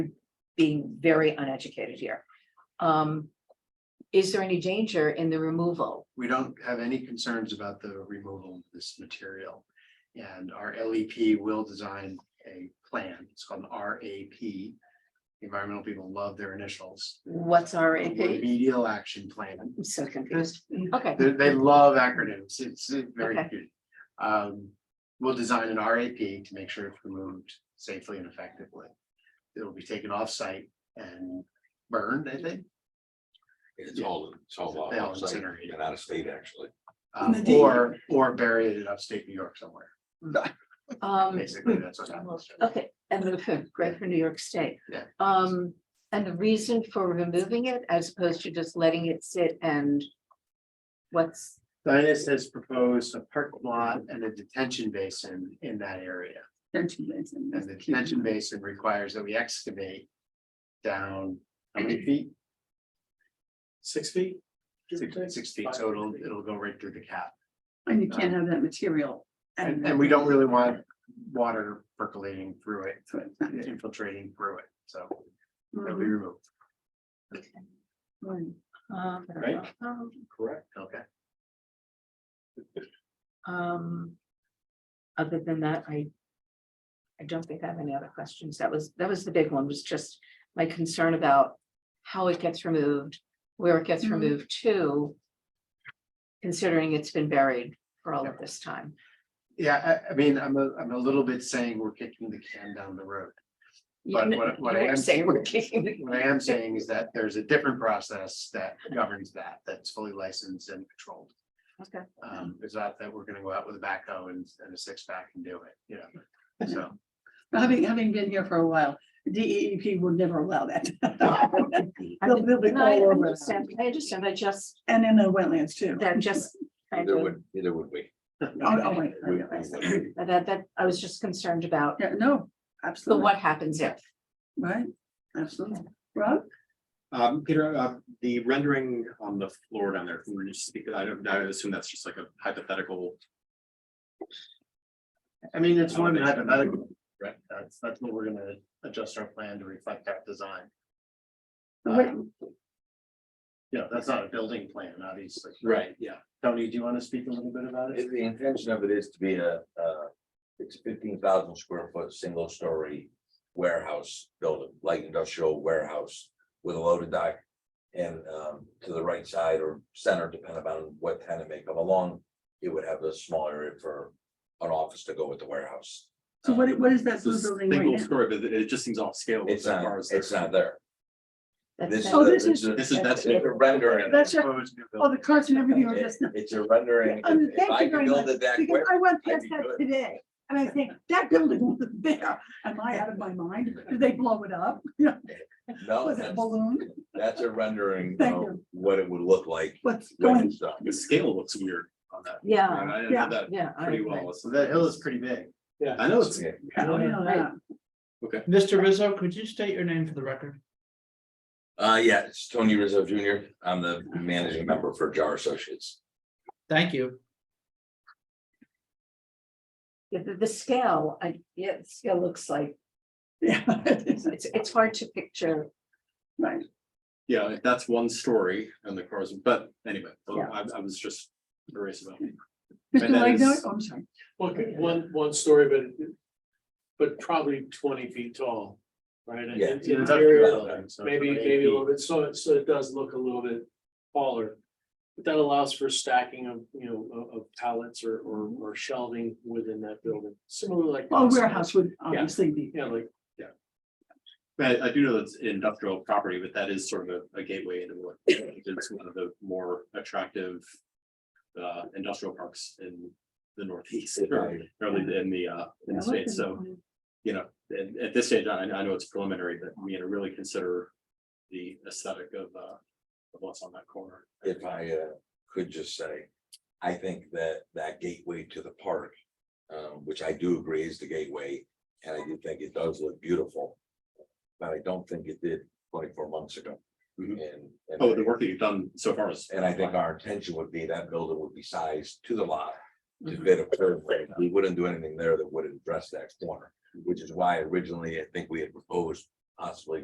being very uneducated here. Um, is there any danger in the removal? We don't have any concerns about the removal of this material. And our LEP will design a plan. It's called an RAP. Environmental people love their initials. What's our, I'm Remedial Action Plan. so confused. Okay, They, they love acronyms. It's it's very Okay. good. Um, we'll design an RAP to make sure it's removed safely and effectively. It'll be taken off-site and burned, I think. It's all, it's all They all outside incinerate. and out of state, actually. um, Indeed. Or, or bury it in upstate New York somewhere. um, Basically, that's what happens. okay, and the, great for New York State. Yeah. Um, and the reason for removing it as opposed to just letting it sit and what's, Dynas has proposed a parking lot and a detention basin in that area. Detention basin, And that's the cute. detention basin requires that we excavate down how many feet? Six feet? Six six feet total. It'll go right through the cap. And you can't have that material. And, and we don't really want water percolating through it, So it's not- infiltrating through it. So it'll be Mhm. removed. Right. um, Right. Correct. Okay. um. Other than that, I. I don't think I have any other questions. That was, that was the big one, was just my concern about how it gets removed, where it gets Mm-hmm. Mhm. removed to. Considering it's been buried for all of Yeah. this time. Yeah, I, I mean, I'm a, I'm a little bit saying we're kicking the can down the road. But You what- what I know, you're am- Saying we're kicking the What I am saying is that there's a different process that governs that, that's fully licensed and controlled. Okay. Um, it's not that we're gonna go out with a backhoe and, and a six pack and do it, you know, so. Having, having been here for a while, E DEEP will never allow that. I They'll- they'll be No, I all over us. understand, I understand, I just, And in the wetlands too. that just. I Either think would, either would we. Oh, oh, wait, I We- we realize that. would. That, that, I was just concerned about, Yeah, no, the absolutely, what happens if. right, absolutely. Rob? Um, Peter, uh, the rendering on the floor down there, can we just speak, I don't, I would assume that's just like a hypothetical. I mean, it's one hypothetical. Right. That's, that's what we're gonna adjust our plan to reflect that design. What- Yeah, that's not a building plan, obviously. Right, yeah. Tony, do you wanna speak a little bit about it? The the intention of it is to be a, uh, it's fifteen thousand square foot, single story warehouse building, light industrial warehouse with a loaded dock. And, um, to the right side or center, depending on what tenant may come along, it would have a small area for an office to go with the warehouse. Um, So what, what is that blue This building right now? single story, but it- it just seems off scale. with It's as far not, as their- it's not there. That's- that's- This is, Oh, a- this it's is- a This is, that's, it's a rendering. That's right. Proposed new Oh, building. the carts and everything are It- just. not- It's a rendering. Oh, If if thank I you very could build much, it that Because quick, I went I'd past be that good. today, and I think, that building wasn't there, am I out of my mind, did they blow it up? You know, no, Was it Oh, a that's, balloon, that's a rendering Thank of you. what it would look like what's when going, it's done. the scale looks weird on that. Yeah, I Oh, yeah. know that yeah. I pretty agree. well. So that hill is pretty big. I know it's. Yeah. I don't know that. Mr. Rizzo, could you state your name for the record? Uh, yeah, it's Tony Rizzo Junior. I'm the managing member for Jar Associates. Thank you. Yeah, the, the scale, I, yeah, the scale looks like, yeah, it's, it's hard to picture. right, Yeah, if that's one story and the cars, but anyway, Yeah. I, I was just curious about. Mr. And that Legno, is- oh, I'm sorry, Well, good, one, one story, but, but probably twenty feet tall, right? And Yeah. in- It's a Interior, building, so it's maybe, about eight maybe a feet. little bit, so, it- so it does look a little bit taller. But that allows for stacking of, you know, of, of pallets or, or, or shelving within that building, similar like. Oh, well, warehouse would obviously be, Yeah, like, But I do know that's industrial property, but that is sort of a- a gateway into what, it's one of the more attractive. Uh, industrial parks in the northeast, or early in the, uh, in the states, so, you know, and at this stage, I, I know it's preliminary, but we gotta really consider. The aesthetic of, uh, of what's on that corner. If I uh, could just say, I think that that gateway to the park, um, which I do agree is the gateway, and I do think it does look beautiful. But I don't think it did twenty-four months ago. Mhm. Mm-hmm. And, and Oh, the work that you've done so far is. And I think our intention would be that building would be sized to the lot. To fit a curve, we wouldn't do anything there that would address that corner, which is why originally I think we had proposed possibly